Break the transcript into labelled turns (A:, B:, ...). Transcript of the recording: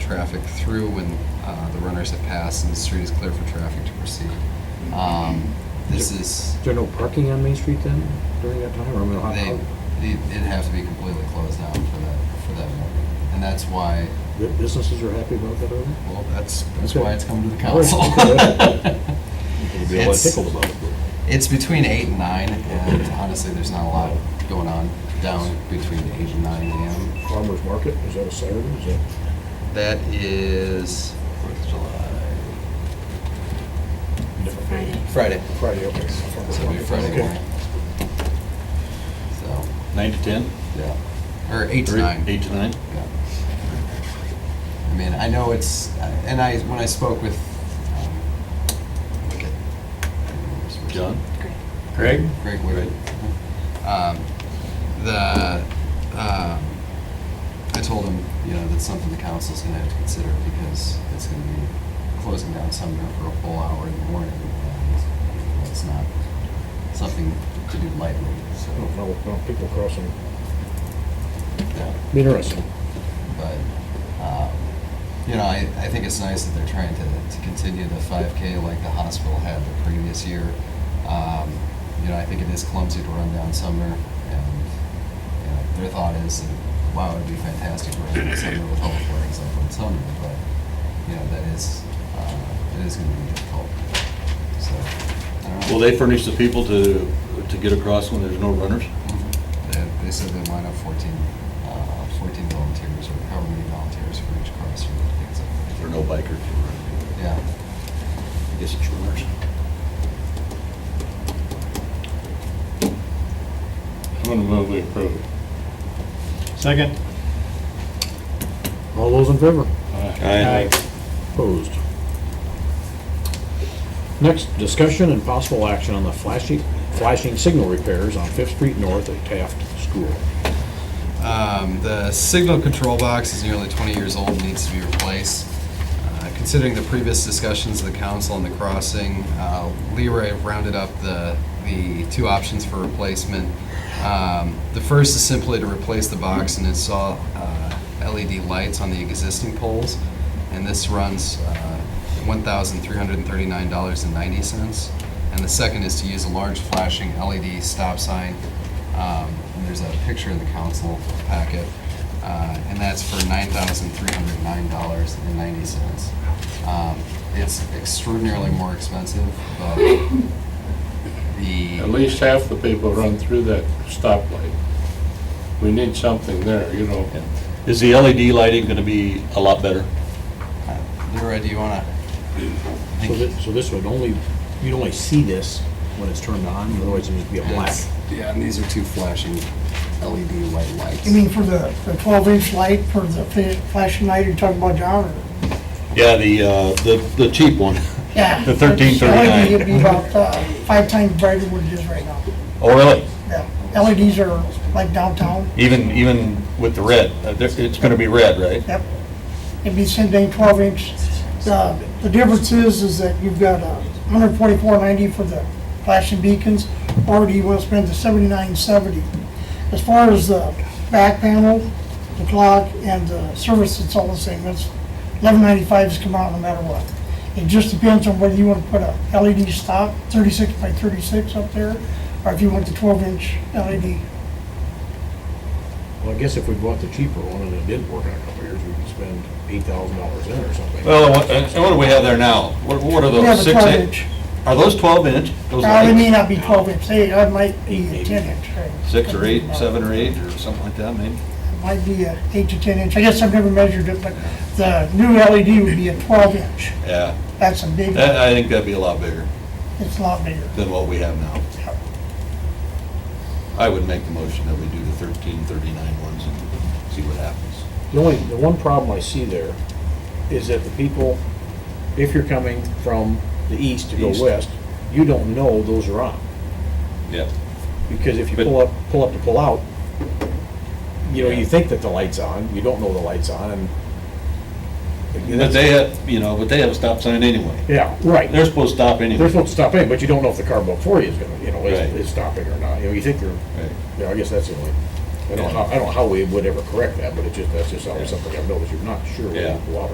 A: traffic through when uh, the runners have passed and the street is clear for traffic to proceed.
B: Mm-hmm.
A: Um, This is,
B: Is there no parking on Main Street then during that time? Or I mean, how-
A: they, it- it'd have to be completely closed down for that, for that morning. And that's why,
B: how- the businesses are happy about that already?
A: well, that's, that's
B: Okay.
A: why it's come to the
B: All
A: council.
B: right. There'll be a lot of
A: It's-
B: pickle about it, but-
A: It's between eight and nine, and honestly, there's not a lot going on down between eight and nine AM.
B: Farmers Market, is that a Saturday? Is that,
A: That is Fourth of July,
C: It's a Friday.
A: Friday.
B: Friday, okay.
A: So it'll be Friday
B: Okay.
A: morning. So,
D: Nine to 10?
A: yeah, or eight to
D: Or
A: nine.
D: Eight to nine?
A: Yeah. I mean, I know it's, and I, when I spoke with, um, look at-
D: John?
C: Great.
D: Greg?
A: Greg Wood. Um, the, um, I told him, you know, that's something the council's gonna have to consider because it's gonna be closing down Sumner for a full hour in the morning. and That's not something to do lightly, so,
B: I don't know, no, people crossing.
A: yeah.
B: Be interesting.
A: But, um, you know, I, I think it's nice that they're trying to, to continue the 5K like the hospital had the previous year. Um, you know, I think it is clumsy to run down Sumner, and you know, their thought is, that, wow, it'd be fantastic to run down Sumner with all the flags up on Sumner, but you know, that is uh, it is going to be difficult. So, I don't know.
D: Will they furnish the people to, to get across when there's no runners?
A: They, they said they line up 14, uh, 14 volunteers or however many volunteers for each crossroad. I think it's like-
D: Or no bikers?
A: Yeah.
D: I guess it's runners.
E: I'm gonna move we approve. Second?
B: All those in favor?
D: Aye.
B: Opposed. Next, discussion and possible action on the flashing, flashing signal repairs on Fifth Street North at Taft School.
A: Um, the signal control box is nearly 20 years old and needs to be replaced. Uh, Considering the previous discussions of the council on the crossing, uh, Leroy rounded up the, the two options for replacement. Um, The first is simply to replace the box and install uh, LED lights on the existing poles, and this runs uh, $1,339.90. And the second is to use a large flashing LED stop sign um, and there's a picture in the council packet, uh, and that's for nine thousand three hundred nine dollars and ninety cents. Um, it's extraordinarily more expensive, but
E: At
A: the,
E: least half the people run through that stoplight. We need something there, you know.
D: Is the LED lighting gonna be a lot better?
A: Leroy, do you wanna? I
B: So
A: think-
B: this, so this would only, you'd only see this when it's turned on, otherwise it'd just be a black.
A: That's- Yeah, and these are two flashing LED white lights.
F: You mean for the the 12-inch light, for the fa- flashing light you're talking about, John? or-
D: Yeah, the, uh, the, the cheap one.
F: Yeah.
D: The thirteen
F: LED would be
D: thirty-nine.
F: about uh, five times brighter than what it is right now.
D: Oh, really?
F: Yeah. LEDs are like downtown,
D: Even, even with the red, uh, there- it's gonna be red, right?
F: yep. It'd be same thing, 12-inch. The the difference is, is that you've got uh, 144.90 for the flashing beacons, or do you want to spend the 79.70? As far as the back panel, the clock, and the service, it's all the same. It's 11.95 has come out no matter what. It just depends on whether you want to put a LED stop, 36 by 36 up there, or if you want the 12-inch LED.
B: Well, I guess if we bought the cheaper one and it did work in a couple of years, we could spend eight thousand dollars in or something.
D: Well, what, and what do we have there now? What, what are
F: You have
D: those,
F: a Uh,
D: six,
F: 12-inch.
D: eight? Are those twelve inch? Those
F: Now, it
D: lights?
F: may not be 12-inch, they, I might be a 10-inch.
D: Six or eight, seven or eight, or something like that, maybe?
F: Might be a eight to 10 inch. I guess I've never measured it, but the new LED would be a 12 inch.
D: Yeah,
F: That's a big,
D: that, I think that'd be a lot bigger
F: it's a lot bigger.
D: than what we have now. I would make the motion that we do the thirteen thirty-nine ones and see what happens.
B: The only, the one problem I see there is that the people, if you're coming from the east to go
D: East.
B: west, you don't know those are on.
D: Yeah.
B: Because if you
D: But-
B: pull up, pull up to pull out, you know, you think that the light's on, you don't know the light's on and.
D: But they have, you know, but they have a stop sign anyway.
B: Yeah, right.
D: They're supposed to stop anyway.
B: They're supposed to stop in, but you don't know if the car before you is gonna, you know, is,
D: Right.
B: is stopping or not. You know, you think you're,
D: Right.
B: you know, I guess that's the only, I don't know, how- I don't know how we would ever correct that, but it just, that's just always something I've noticed. You're not sure when
D: Yeah.
B: you pull out